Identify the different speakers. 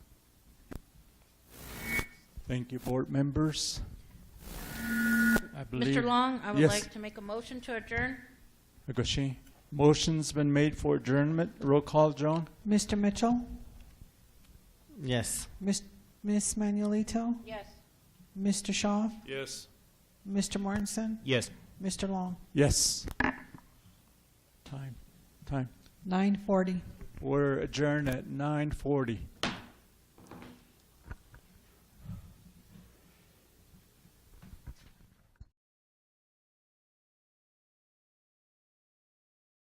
Speaker 1: Thank you, board members. I believe.
Speaker 2: Mr. Long, I would
Speaker 1: Yes.
Speaker 2: like to make a motion to adjourn.
Speaker 1: Agushi. Motion's been made for adjournment. Roll call, Joan?
Speaker 3: Mr. Mitchell,
Speaker 4: Yes.
Speaker 3: Miss Ms. Manuelito,
Speaker 2: Yes.
Speaker 3: Mr. Shaw,
Speaker 1: Yes.
Speaker 3: Mr. Mortensen,
Speaker 4: Yes.
Speaker 3: Mr. Long,
Speaker 1: Yes. Time, time.
Speaker 3: nine forty.
Speaker 1: We're adjourned at nine forty.